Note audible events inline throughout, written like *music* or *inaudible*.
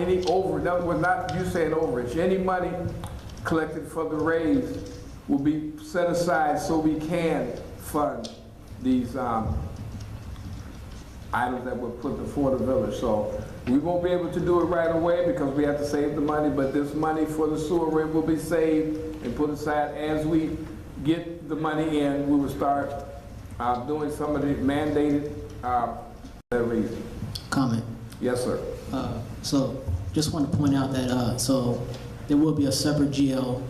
Any over, that was not, you said overage, any money collected for the raise will be set aside so we can fund these, um, items that were put before the village, so we won't be able to do it right away because we have to save the money, but this money for the sewer rate will be saved and put aside as we get the money in, we will start, uh, doing some of the mandated, uh, that reason. comment. Yes, sir. Uh, So just want to point out that, uh, so there will be a separate GL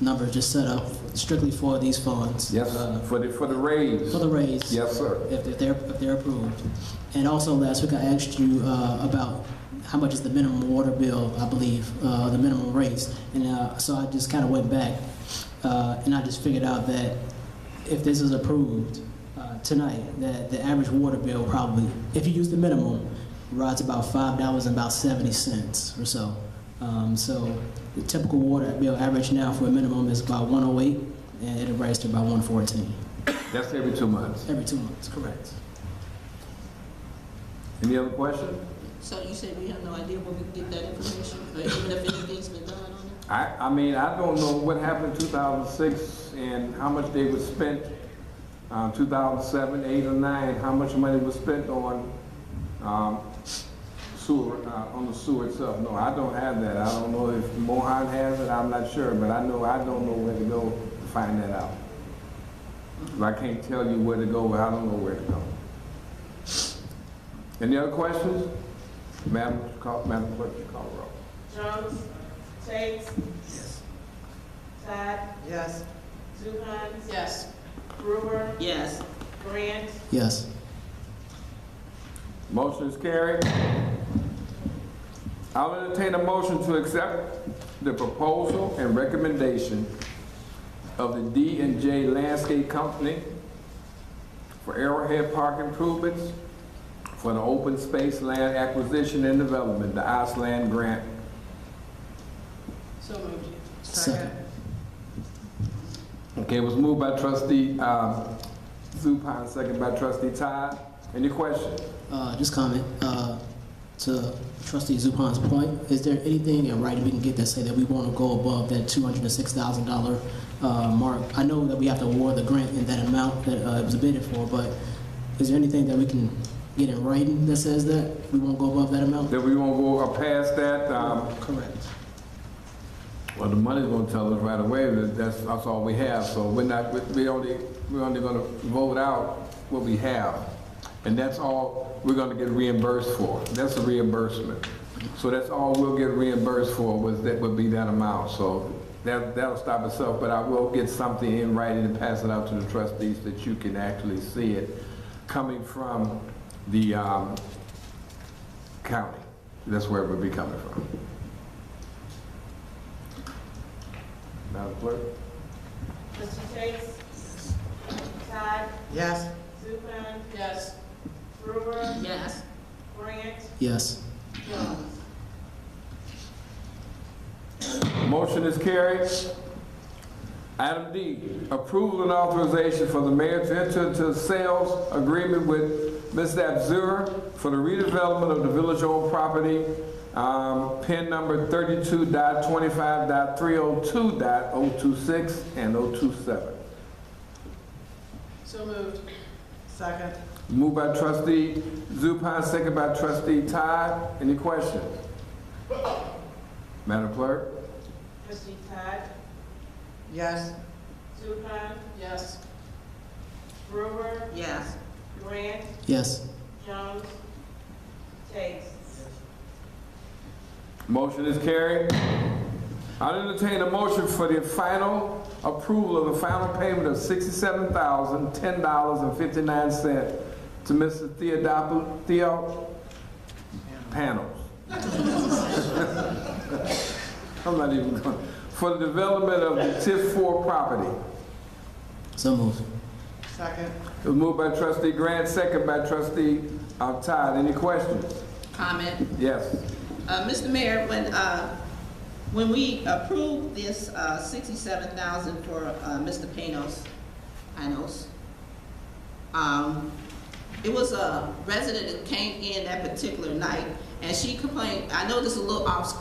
number just set up strictly for these funds. Yes, uh, for the, for the raise. For the raise. Yes, sir. If if they're, if they're approved. And also last week I asked you uh, about how much is the minimum water bill, I believe, uh, the minimum raise. And uh, so I just kind of went back uh, and I just figured out that if this is approved uh, tonight, that the average water bill probably, if you use the minimum, rides about five dollars and about seventy cents or so. Um, So the typical water bill average now for a minimum is about 108 and it'll rise to about 114 That's every two months. every two months, correct? Any other question? So you said we have no idea where we can get that information, or even if anything's been done on it? I, I mean, I don't know what happened in 2006 and how much they was spent, um, 2007, 8, or 9, how much money was spent on um, sewer, uh, on the sewer itself. No, I don't have that. I don't know if Mohan has it, I'm not sure, but I know, I don't know where to go to find that out. I can't tell you where to go, I don't know where to go. Any other questions? Madam, Clerk- Madam Clerk, you call the roll. Jones? Chase? Todd? Yes. Zupan? Yes. Brewer? Yes. Grant? Yes. Motion is carried. I'll entertain a motion to accept the proposal and recommendation of the D and J Landscape Company for Arrowhead Park improvements for the open space land acquisition and development, the Iceland grant. So moved. Second. Okay, it was moved by trustee, um, Zupan, second by trustee Todd. Any questions? Uh, just comment, uh, to trustee Zupan's point, is there anything in writing we can get that say that we want to go above that two hundred and six thousand dollar, uh, mark? I know that we have to award the grant in that amount that, uh, it was bidded for, but is there anything that we can get in writing that says that we won't go above that amount? That we won't go uh, past that, um, Correct. Well, the money's gonna tell us right away, that that's, that's all we have, so we're not, we- we only, we're only gonna vote out what we have. And that's all we're gonna get reimbursed for, that's a reimbursement. So that's all we'll get reimbursed for was, that would be that amount, so that, that'll stop itself, but I will get something in writing and pass it out to the trustees that you can actually see it coming from the, um, county. That's where it would be coming from. Madam Clerk? Mr. Chase? Todd? Yes. Zupan? Yes. Brewer? Yes. Grant? Yes. Jones? Motion is carried. Item D, approval and authorization for the mayor to enter into a sales agreement with Ms. Abzura for the redevelopment of the village-owned property, um, pin number 32.25.302.026 and 027. So moved. Second. Moved by trustee Zupan, second by trustee Todd. Any questions? Madam Clerk? Trustee Todd? Yes. Zupan? Yes. Brewer? Yes. Grant? Yes. Jones? Chase? Motion is carried. I'll entertain a motion for the final approval of the final payment of sixty-seven thousand, ten dollars and fifty-nine cents to Mr. Theodopou, Theo Panels. *laughs* I'm not even going, for the development of the TIF four property. So moved. Second. It was moved by trustee Grant, second by trustee uh, Todd. Any questions? comment. Yes. Uh, Mr. Mayor, when, uh, when we approved this, uh, sixty-seven thousand for, uh, Mr. Panos, Panos, um, it was a resident that came in that particular night And she complained, I know this is a little off script,